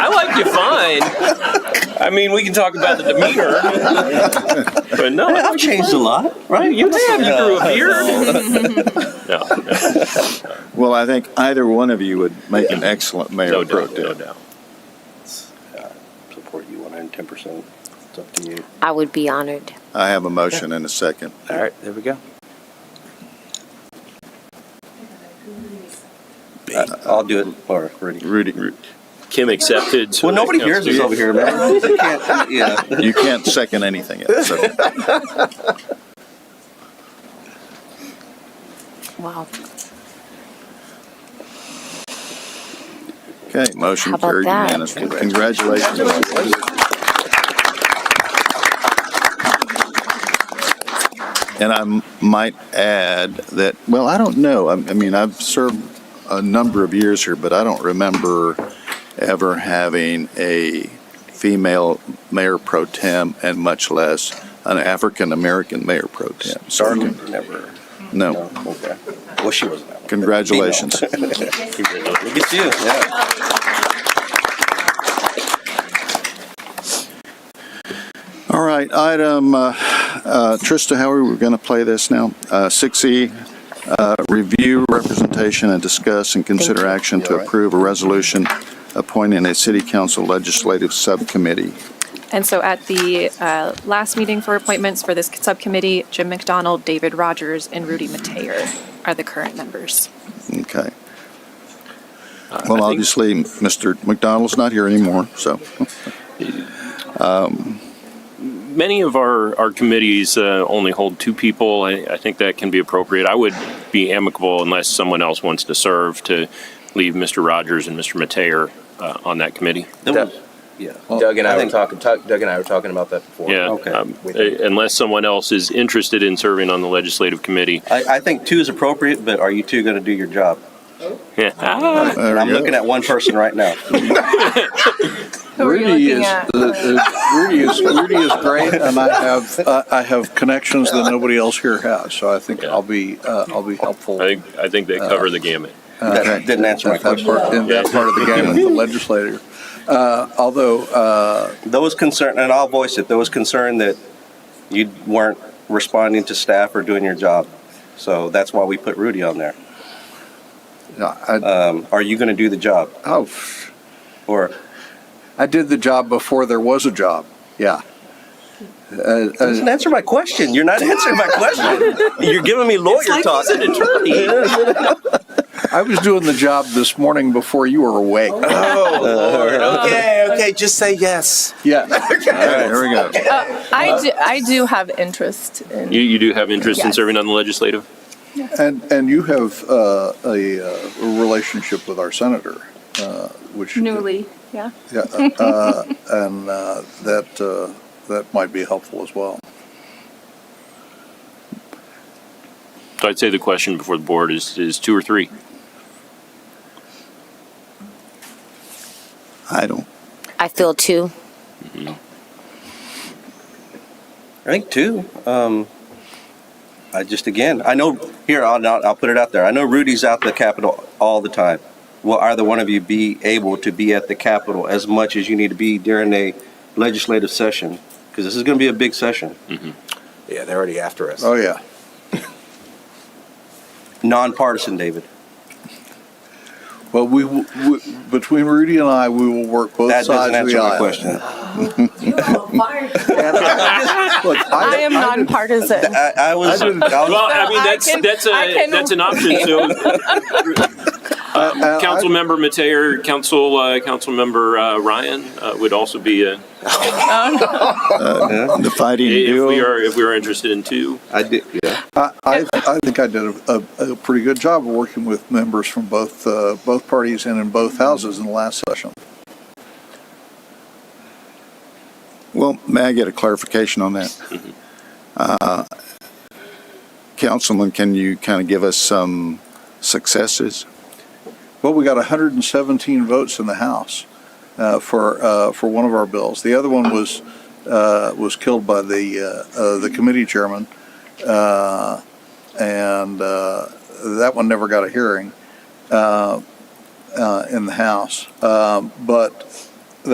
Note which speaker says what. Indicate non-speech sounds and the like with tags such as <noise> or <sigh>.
Speaker 1: mind. I mean, we can talk about the demeanor, but no,
Speaker 2: <laughs> I've changed a lot, right?
Speaker 1: You have. You grew a beard. no, no,
Speaker 3: Well, I think either one of you would make an excellent
Speaker 1: no
Speaker 3: mayor pro
Speaker 1: doubt, no
Speaker 3: tem.
Speaker 1: doubt.
Speaker 2: Support you 110%. It's up to you.
Speaker 4: I would be honored.
Speaker 3: I have a motion and a second.
Speaker 2: <laughs> All right, there we go. Uh, I'll do it, Laura, ready.
Speaker 3: Rudy, Ru-
Speaker 1: Kim accepted. so
Speaker 2: Well, nobody
Speaker 1: that counts
Speaker 2: hears us
Speaker 1: too.
Speaker 2: over here, man. They can't- Yeah.
Speaker 3: you can't second anything
Speaker 1: <laughs>
Speaker 3: else. so.
Speaker 4: Wow.
Speaker 3: Okay, motion
Speaker 4: How about
Speaker 3: carried
Speaker 4: that?
Speaker 3: unanimously. Congratulations. And I m- might add that, well, I don't know, I I mean, I've served a number of years here, but I don't remember ever having a female mayor pro tem and much less an African-American mayor pro tem. Sorry,
Speaker 2: Never.
Speaker 3: no.
Speaker 2: No, okay. Well, she wasn't that one.
Speaker 3: Congratulations.
Speaker 2: Look at you, yeah.
Speaker 3: All right, item, uh, uh, Trista, how are we going to play this now? Uh, 6E, uh, review representation and discuss and consider action to
Speaker 2: All right.
Speaker 3: approve a resolution appointing a city council legislative subcommittee.
Speaker 5: And so at the uh, last meeting for appointments for this subcommittee, Jim McDonald, David Rogers, and Rudy Mateer are the current members.
Speaker 3: Okay.
Speaker 1: Uh,
Speaker 3: Well,
Speaker 1: I think-
Speaker 3: obviously, Mr. McDonald's not here anymore, so.
Speaker 1: many of our, our committees uh, only hold two people. I, I think that can be appropriate. I would be amicable unless someone else wants to serve to leave Mr. Rogers and Mr. Mateer uh, on that committee.
Speaker 2: That- Yeah.
Speaker 6: Doug and I, were
Speaker 2: think-
Speaker 6: talking. Doug and I were talking about that before.
Speaker 1: Yeah.
Speaker 2: Okay.
Speaker 1: um, uh, unless someone else is interested in serving on the legislative committee. <laughs>
Speaker 2: I, I think two is appropriate, but are you two gonna do your job?
Speaker 1: Yeah.
Speaker 3: there
Speaker 2: And I'm
Speaker 3: we go.
Speaker 2: looking at one person right <laughs> now.
Speaker 5: Who are you
Speaker 7: Rudy
Speaker 5: looking
Speaker 7: is,
Speaker 5: at?
Speaker 7: the- the- Rudy is, Rudy is great, and I have, I- I have connections that nobody else here has, so I think I'll be, uh, I'll be helpful.
Speaker 1: I think I think they cover the gamut.
Speaker 2: That didn't answer my
Speaker 7: At that
Speaker 2: question.
Speaker 7: part, in that part of the
Speaker 2: <laughs>
Speaker 7: game with the legislator. Uh, although, uh,
Speaker 2: There was concern, and I'll voice it, there was concern that you weren't responding to staff or doing your job. So that's why we put Rudy on there.
Speaker 7: I,
Speaker 2: Um, are you gonna do the job?
Speaker 7: oh,
Speaker 2: Or,
Speaker 7: I did the job before there was a job, yeah. Uh, uh,
Speaker 2: doesn't answer my question. You're not answering my question. You're giving me lawyer talk.
Speaker 7: I was doing the job this morning before you
Speaker 2: <laughs>
Speaker 7: were awake.
Speaker 6: Okay. Okay. Just say yes.
Speaker 7: Yeah,
Speaker 3: All right, here we go.
Speaker 8: I do, I do have interest in.
Speaker 1: You, you do have interest in
Speaker 8: Yes.
Speaker 1: serving on the legislative?
Speaker 7: and, and you have uh, a uh, relationship with our senator, uh, which.
Speaker 8: Newly, yeah.
Speaker 7: Yeah, uh, and uh, that, uh, that might be helpful as well.
Speaker 1: So I'd say the question before the board is is two or three.
Speaker 3: I don't,
Speaker 4: I feel too.
Speaker 2: I think two. Um, I just again, I know here. I'll not, I'll put it out there. I know Rudy's out the Capitol all the time. Will either one of you be able to be at the Capitol as much as you need to be during a legislative session? Because this is going to be a big session,
Speaker 6: Yeah, they're already after us.
Speaker 7: Oh, yeah.
Speaker 2: nonpartisan, David.
Speaker 7: Well, we, w- we- between Rudy and I, we will work both
Speaker 2: That
Speaker 7: sides
Speaker 2: doesn't
Speaker 7: of
Speaker 2: answer
Speaker 7: the
Speaker 2: my
Speaker 7: aisle.
Speaker 2: question.
Speaker 7: And <laughs> Look,
Speaker 8: I am nonpartisan.
Speaker 2: I, I was,
Speaker 6: <laughs>
Speaker 2: I
Speaker 1: Well,
Speaker 2: was
Speaker 1: I mean
Speaker 8: Oh, I
Speaker 1: that's
Speaker 8: can-
Speaker 1: that's
Speaker 8: I
Speaker 1: a
Speaker 8: can-
Speaker 1: that's an option.
Speaker 8: <laughs>
Speaker 1: So
Speaker 7: I- I-
Speaker 1: Councilmember Uh, Mateer, Council, uh, Councilmember uh, Ryan uh, would also be, uh,
Speaker 3: the fighting
Speaker 1: if we
Speaker 3: duo.
Speaker 1: are, if we are interested in two.
Speaker 2: I did. Yeah.
Speaker 7: I, I, I think I did a, a, a pretty good job of working with members from both, uh, both parties and in both houses in the last session.
Speaker 3: Well, may I get a clarification on that? Uh, Councilman, can you kind of give us some successes?
Speaker 7: Well, we got 117 votes in the House uh, for, uh, for one of our bills. The other one was, uh, was killed by the, uh, uh, the committee chairman. Uh, and uh, that one never got a hearing uh, uh, in the House. Um, but